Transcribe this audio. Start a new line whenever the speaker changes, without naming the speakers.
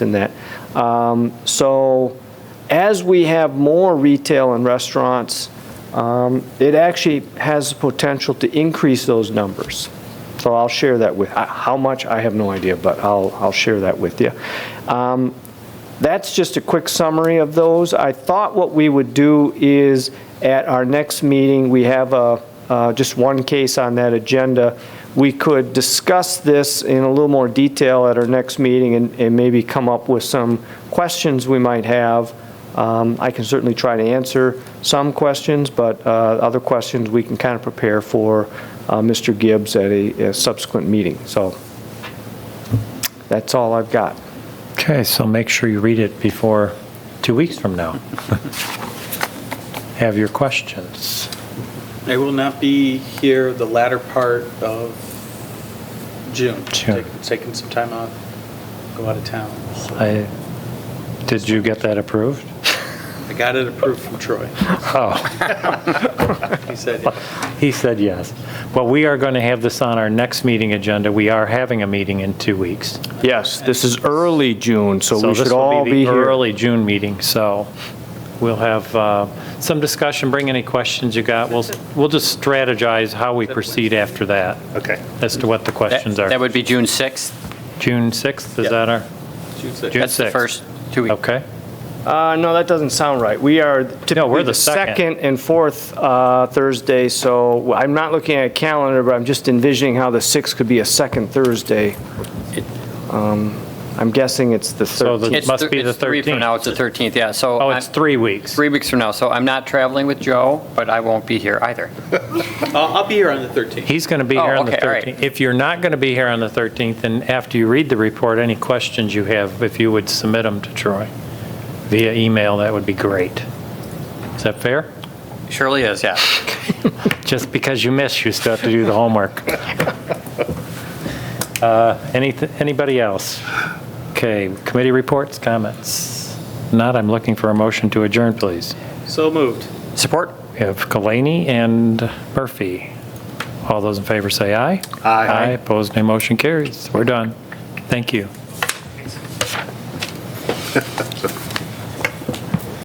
than that. Um, So as we have more retail and restaurants, um, it actually has the potential to increase those numbers. So I'll share that with, I- how much, I have no idea, but I'll, I'll share that with you. Um, That's just a quick summary of those. I thought what we would do is, at our next meeting, we have a, uh, just one case on that agenda. We could discuss this in a little more detail at our next meeting and and maybe come up with some questions we might have. Um, I can certainly try to answer some questions, but uh, other questions we can kind of prepare for uh, Mr. Gibbs at a a subsequent meeting. So that's all I've got.
Okay, so make sure you read it before two weeks from now. Have your questions.
I will not be here the latter part of June.
June.
Taking- Taking some time out, go out of town. So
I, did you get that approved?
I got it approved from Troy.
Oh,
He said,
he said yes. Well, we are going to have this on our next meeting agenda. We are having a meeting in two weeks.
Yes, this is early June, so we
this
should
will
all be
the
here.
Early June meeting, so we'll have uh, some discussion. Bring any questions you got. We'll, we'll just strategize how we proceed after that. Okay. As to what the questions
That- That
are.
would be June 6th.
June 6th, is
Yeah.
that our?
June 6th.
June
That's the
6th.
first two weeks.
Okay.
Uh, no, that doesn't sound right. We are typically
we're
the
the second.
second and fourth uh, Thursday, so I'm not looking at a calendar, but I'm just envisioning how the 6th could be a second Thursday. Um, I'm guessing it's the
So the-
13th.
It's
Must
thir-
be the
it's three from
13th.
now, it's the 13th, yeah, so.
Oh,
I'm-
it's three weeks.
Three weeks from now, so I'm not traveling with Joe, but I won't be here either.
I'll I'll be here on the 13th.
He's going to be
Oh,
here on the
okay, all right.
13th. If you're not going to be here on the 13th, then after you read the report, any questions you have, if you would submit them to Troy via email, that would be great. Is that fair?
Surely is, yeah.
Just because you miss, you still have to do the homework. Uh, anyth- Anybody else? Okay, committee reports, comments? Not, I'm looking for a motion to adjourn, please.
So moved.
Support?
We have Kalani and Murphy. All those in favor say aye. Aye. Aye, opposed, nay, motion carries. We're done. Thank you.